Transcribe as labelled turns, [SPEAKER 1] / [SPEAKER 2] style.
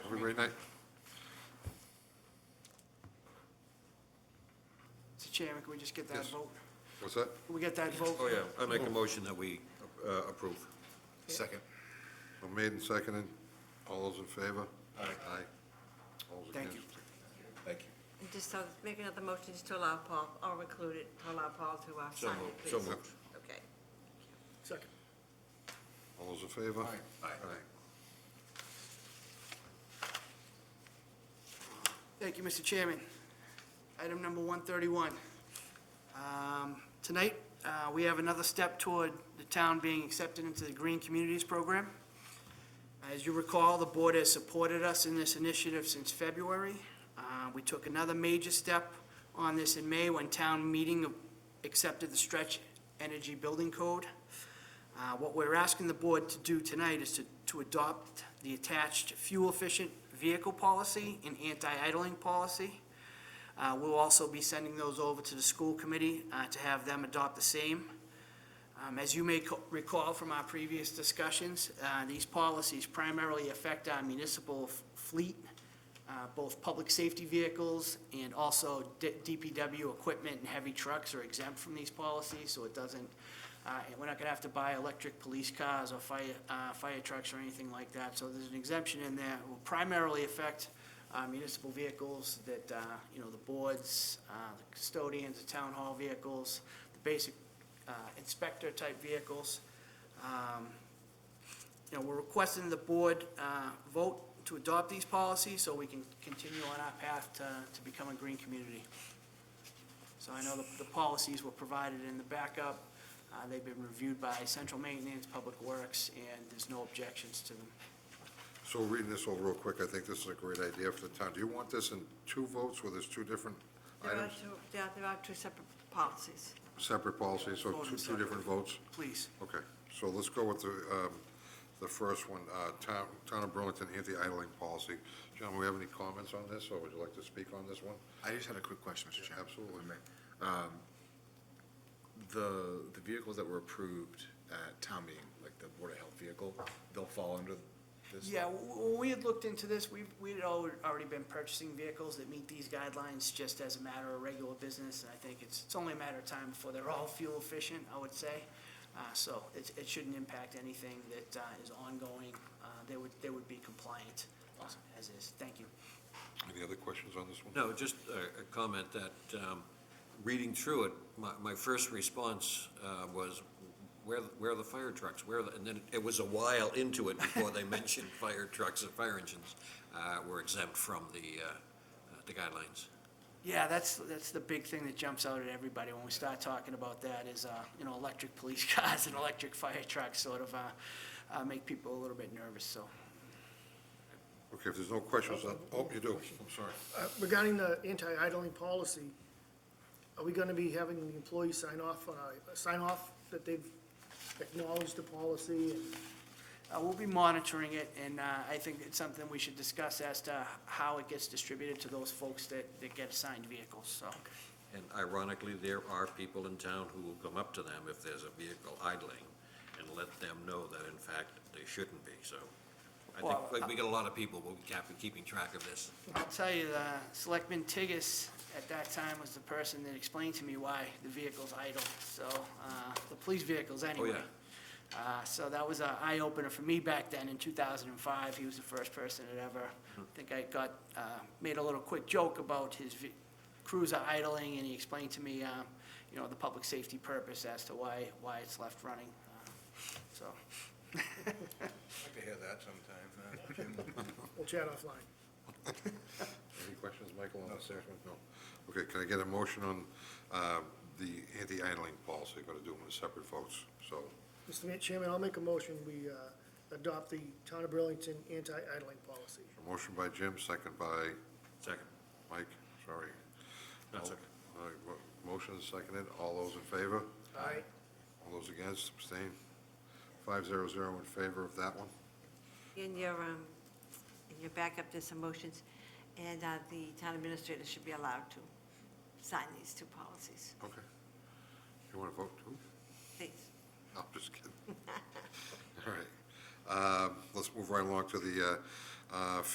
[SPEAKER 1] great night.
[SPEAKER 2] Mr. Chairman, can we just get that
[SPEAKER 1] Yes.
[SPEAKER 2] vote?
[SPEAKER 1] What's that?
[SPEAKER 2] Can we get that vote?
[SPEAKER 3] Oh, yeah, I make a motion that we uh, approve.
[SPEAKER 4] Second.
[SPEAKER 1] So made and seconded. All those in favor? Aye. All those
[SPEAKER 2] Thank
[SPEAKER 1] against?
[SPEAKER 4] Uh, Thank you.
[SPEAKER 5] And Just so, make another motion just to allow Paul, or include it, to allow Paul to uh,
[SPEAKER 3] So
[SPEAKER 5] sign
[SPEAKER 3] moved,
[SPEAKER 5] it, please.
[SPEAKER 3] so moved.
[SPEAKER 5] Okay.
[SPEAKER 4] Second.
[SPEAKER 1] All those in favor?
[SPEAKER 4] Aye. Aye.
[SPEAKER 2] Thank you, Mr. Chairman. Item number 131. Um, Tonight, uh, we have another step toward the town being accepted into the Green Communities Program. As you recall, the board has supported us in this initiative since February. Uh, We took another major step on this in May when town meeting accepted the Stretch Energy Building Code. Uh, What we're asking the board to do tonight is to, to adopt the attached fuel-efficient vehicle policy and anti-idling policy. Uh, We'll also be sending those over to the school committee uh, to have them adopt the same. Um, As you may co- recall from our previous discussions, uh, these policies primarily affect our municipal f- fleet, uh, both public safety vehicles and also D- DPW equipment and heavy trucks are exempt from these policies, so it doesn't, uh, and we're not going to have to buy electric police cars or fire, uh, fire trucks or anything like that. So there's an exemption in there. It will primarily affect uh, municipal vehicles that, uh, you know, the boards, uh, the custodians, the town hall vehicles, the basic uh, inspector-type vehicles. Um, You know, we're requesting the board uh, vote to adopt these policies so we can continue on our path to, to become a green community. So I know the, the policies were provided in the backup. Uh, They've been reviewed by central maintenance, public works, and there's no objections to them.
[SPEAKER 1] So reading this over real quick, I think this is a great idea for the town. Do you want this in two votes where there's two different
[SPEAKER 5] There are
[SPEAKER 1] items?
[SPEAKER 5] two, yeah, there are two separate policies.
[SPEAKER 1] Separate policies, so
[SPEAKER 2] Vote
[SPEAKER 1] two,
[SPEAKER 2] them
[SPEAKER 1] two different votes?
[SPEAKER 2] Please.
[SPEAKER 1] Okay, so let's go with the, um, the first one, uh, Town, Town of Burlington Anti-Idling Policy. John, we have any comments on this, or would you like to speak on this one?
[SPEAKER 4] I just had a quick question, Mr. Chairman.
[SPEAKER 1] absolutely.
[SPEAKER 4] If I may. Um, The, the vehicles that were approved at town meeting, like the Board of Health vehicle, they'll fall under this?
[SPEAKER 2] Yeah, w- w- we had looked into this, we, we had al- already been purchasing vehicles that meet these guidelines just as a matter of regular business, and I think it's, it's only a matter of time before they're all fuel efficient, I would say. Uh, so it, it shouldn't impact anything that, uh, is ongoing, uh, they would, they would be compliant, uh, as is, thank you.
[SPEAKER 1] Any other questions on this one?
[SPEAKER 3] No, just a a comment that, um, reading through it, my, my first response uh, was, where, where are the fire trucks? Where, are the-" and then it was a while into it before they mentioned fire trucks and fire engines uh, were exempt from the, uh, uh, the guidelines.
[SPEAKER 2] Yeah, that's, that's the big thing that jumps out at everybody when we start talking about that is, uh, you know, electric police cars and electric fire trucks sort of, uh, uh, make people a little bit nervous, so.
[SPEAKER 1] Okay, if there's no questions, uh, oh, you do, I'm sorry.
[SPEAKER 6] Uh, Regarding the anti-idling policy, are we gonna be having the employees sign off, on a- sign off that they've acknowledged the policy? and-
[SPEAKER 2] Uh, We'll be monitoring it, and uh, I think it's something we should discuss as to how it gets distributed to those folks that, that get assigned vehicles, so.
[SPEAKER 3] And ironically, there are people in town who will come up to them if there's a vehicle idling and let them know that in fact they shouldn't be, so. I
[SPEAKER 2] Well,
[SPEAKER 3] think, like, we get a lot of people, we'll be keeping track of this.
[SPEAKER 2] I'll tell you, the Selectman Tigas at that time was the person that explained to me why the vehicle's idle, so, uh, the police vehicles anyway. Uh, So that was an eye-opener for me back then in 2005. He was the first person that ever, I think I got, uh, made a little quick joke about his ve- cruiser idling, and he explained to me, um, you know, the public safety purpose as to why, why it's left running, uh, so.
[SPEAKER 7] I'd like to hear that sometime, uh, Jim.
[SPEAKER 6] We'll chat offline.
[SPEAKER 1] Any questions, Michael, on this? No. Okay, can I get a motion on um, the anti-idling policy? Got to do them in separate votes, so,
[SPEAKER 6] Mr. Chairman, I'll make a motion, we uh, adopt the Town of Burlington anti-idling policy.
[SPEAKER 1] a motion by Jim, second by
[SPEAKER 3] Second.
[SPEAKER 1] Mike, sorry.
[SPEAKER 3] That's okay.
[SPEAKER 1] All right, mo- Motion is seconded, all those in favor?
[SPEAKER 6] Aye.
[SPEAKER 1] All those against, abstain? Five zero zero in favor of that one?
[SPEAKER 5] In your, um, in your backup, there's some motions, and, uh, the town administrator should be allowed to sign these two policies,
[SPEAKER 1] Okay. You want to vote too?
[SPEAKER 5] please.
[SPEAKER 1] I'm just kidding. All right. Um, Let's move right along to the uh, uh,